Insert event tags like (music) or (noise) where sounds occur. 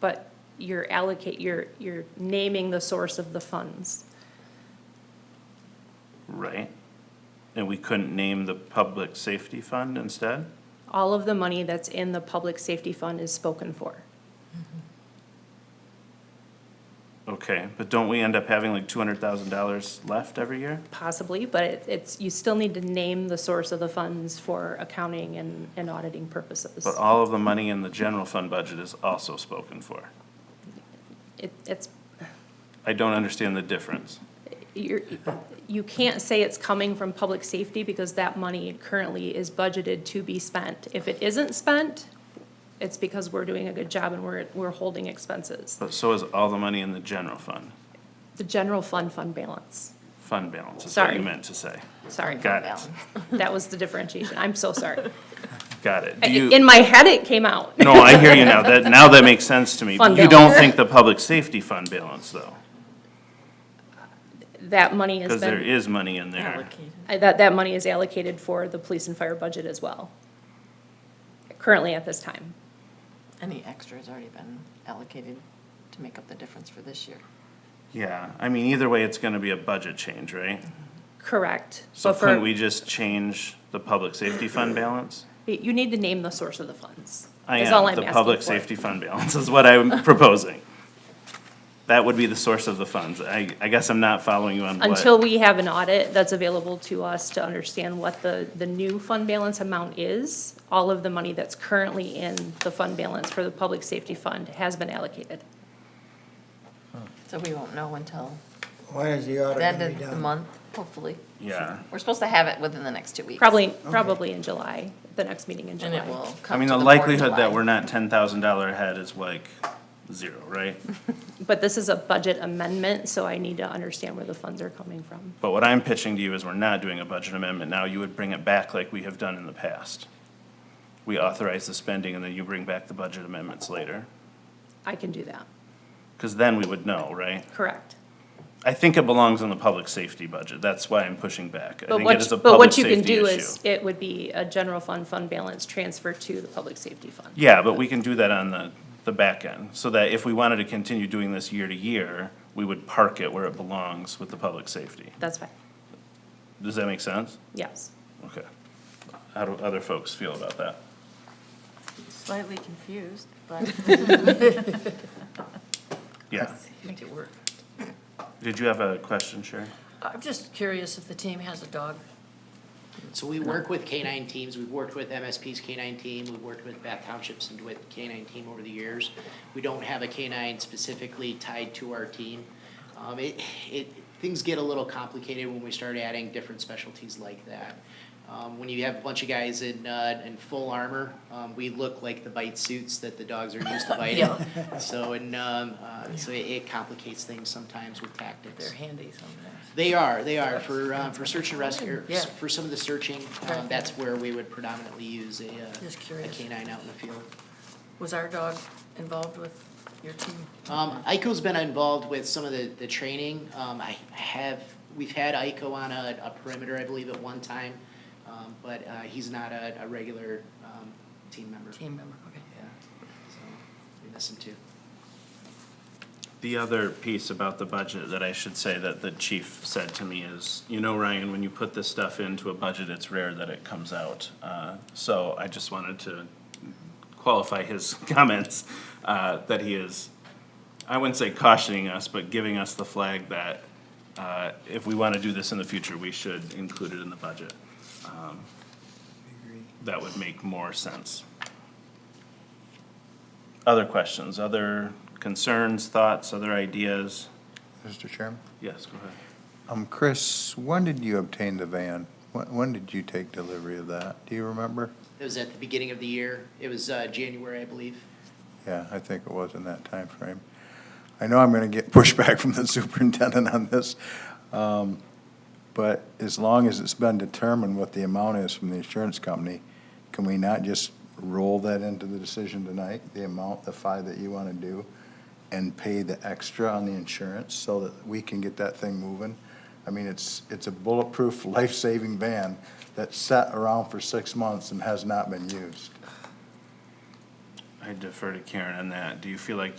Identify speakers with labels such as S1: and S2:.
S1: but you're allocate, you're, you're naming the source of the funds.
S2: Right. And we couldn't name the public safety fund instead?
S1: All of the money that's in the public safety fund is spoken for.
S2: Okay, but don't we end up having like two hundred thousand dollars left every year?
S1: Possibly, but it- it's, you still need to name the source of the funds for accounting and, and auditing purposes.
S2: But uh, all of the money in the general fund budget is also spoken for.
S1: It, it's,
S2: I don't understand the difference.
S1: you're, you can't say it's coming from public safety because that money currently is budgeted to be spent. If it isn't spent, it's because we're doing a good job and we're, we're holding expenses.
S2: But so is all the money in the general fund,
S1: The general fund fund balance,
S2: fund balance is what you
S1: Sorry.
S2: meant to say.
S1: sorry.
S2: Got it,
S1: (laughs) That was the differentiation, I'm so sorry.
S2: got it. Do
S1: In
S2: you,
S1: my head, it came out.
S2: no, I hear you now, that, now that makes sense to me.
S1: Fund
S2: You don't
S1: balance.
S2: think the public safety fund balance though,
S1: That money has
S2: because there
S1: been,
S2: is money in there.
S3: Allocated.
S1: I- that, that money is allocated for the police and fire budget as well. Currently at this time.
S3: Any extra has already been allocated to make up the difference for this year.
S2: Yeah, I mean, either way, it's gonna be a budget change, right?
S1: Correct.
S2: So
S1: But for-
S2: couldn't we just change the public safety fund balance?
S1: You need to name the source of the funds.
S2: I
S1: is all
S2: am,
S1: I'm
S2: the
S1: asking
S2: public
S1: for.
S2: safety fund balance is what I'm (laughs) proposing. That would be the source of the funds. I, I guess I'm not following you on what.
S1: Until we have an audit that's available to us to understand what the, the new fund balance amount is, all of the money that's currently in the fund balance for the public safety fund has been allocated.
S3: So we won't know until
S4: When is the audit
S3: the end
S4: gonna be
S3: of the
S4: done?
S3: month, hopefully.
S2: Yeah,
S3: We're supposed to have it within the next two weeks.
S1: Probably, probably in July, the next meeting in
S3: And
S1: July.
S3: it will
S2: I
S3: come
S2: mean,
S3: to
S2: the
S3: board in
S2: likelihood
S3: July.
S2: that we're not ten thousand dollar ahead is like zero,
S1: (laughs)
S2: right?
S1: But this is a budget amendment, so I need to understand where the funds are coming from.
S2: But what I'm pitching to you is we're not doing a budget amendment now. You would bring it back like we have done in the past. We authorize the spending and then you bring back the budget amendments later,
S1: I can do that,
S2: because then we would know, right?
S1: correct.
S2: I think it belongs in the public safety budget, that's why I'm pushing back. I
S1: But
S2: think it
S1: what,
S2: is
S1: you-
S2: a
S1: but
S2: public
S1: what you can
S2: safety
S1: do
S2: issue.
S1: is, it would be a general fund, fund balance transfer to the public safety fund.
S2: Yeah, but we can do that on the, the back end, so that if we wanted to continue doing this year to year, we would park it where it belongs with the public safety.
S1: That's fine,
S2: Does that make sense?
S1: yes.
S2: Okay. How do other folks feel about that?
S5: Slightly confused, but
S3: (laughs)
S2: Yeah.
S5: make it work.
S2: Did you have a question, Sherry?
S5: I'm just curious if the team has a dog.
S6: So we work with K-9 teams, we've worked with MSP's K-9 team, we've worked with Bath Township's and DeWitt K-9 team over the years. We don't have a K-9 specifically tied to our team. Um, it, it, things get a little complicated when we start adding different specialties like that. Um, when you have a bunch of guys in, uh, in full armor, um, we look like the bite suits that the dogs are used to biting. So, and, um, uh, so it- it complicates things sometimes with tactics.
S5: They're handy sometimes.
S6: They are, they are, for, um, for search and rescue,
S5: Yeah.
S6: for some of the searching, um, that's where we would predominantly use a,
S5: Just
S6: uh, a
S5: curious.
S6: canine out in the field.
S5: Was our dog involved with your team?
S6: Um, Ico's been involved with some of the, the training, um, I have, we've had Ico on a, a perimeter, I believe, at one time, um, but, uh, he's not a, a regular, um, team member.
S5: Team member, okay.
S6: Yeah, so, we miss him too.
S2: The other piece about the budget that I should say that the chief said to me is, you know, Ryan, when you put this stuff into a budget, it's rare that it comes out. Uh, So I just wanted to qualify his (laughs) comments, uh, that he is, I wouldn't say cautioning us, but giving us the flag that uh, if we want to do this in the future, we should include it in the budget. Um, That would make more sense. Other questions, other concerns, thoughts, other ideas?
S7: Mr. Chairman?
S2: Yes, go ahead.
S7: Um, Chris, when did you obtain the van? When, when did you take delivery of that? Do you remember?
S6: It was at the beginning of the year, it was, uh, January, I believe.
S7: Yeah, I think it was in that time frame. I know I'm gonna get (laughs) pushback from the superintendent on this. um, But as long as it's been determined what the amount is from the insurance company, can we not just roll that into the decision tonight? The amount, the five that you wanna do, and pay the extra on the insurance so that we can get that thing moving? I mean, it's, it's a bulletproof, (laughs) life-saving van that sat around for six months and has not been used.
S2: I defer to Karen on that. Do you feel like you?